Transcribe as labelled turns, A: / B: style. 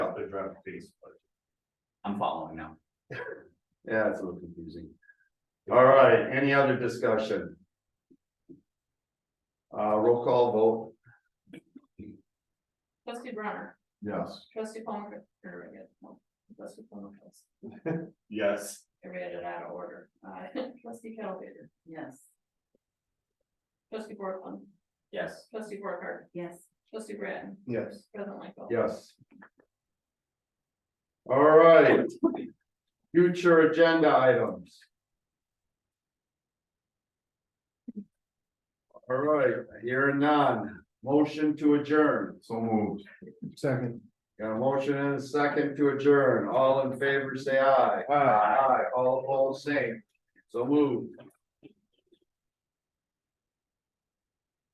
A: draft piece, but.
B: I'm following now.
A: Yeah, it's a little confusing. All right, any other discussion? Uh, roll call vote,
C: Trustee Brunner,
A: yes.
C: trustee Palmer, or I guess, no, trustee Palmer, trustee-
A: Yes.
C: I read it out of order. Uh, Trustee Calvater,
D: Yes.
C: trustee Portland,
B: Yes,
C: trustee Borcar,
D: Yes.
C: trustee Bratton,
A: Yes.
C: president Michael.
A: Yes. All right. Future agenda items. All right, here none, motion to adjourn. So moved. Second. Got a motion and a second to adjourn, all in favor, say aye. Aye. All opposed, same, so moved.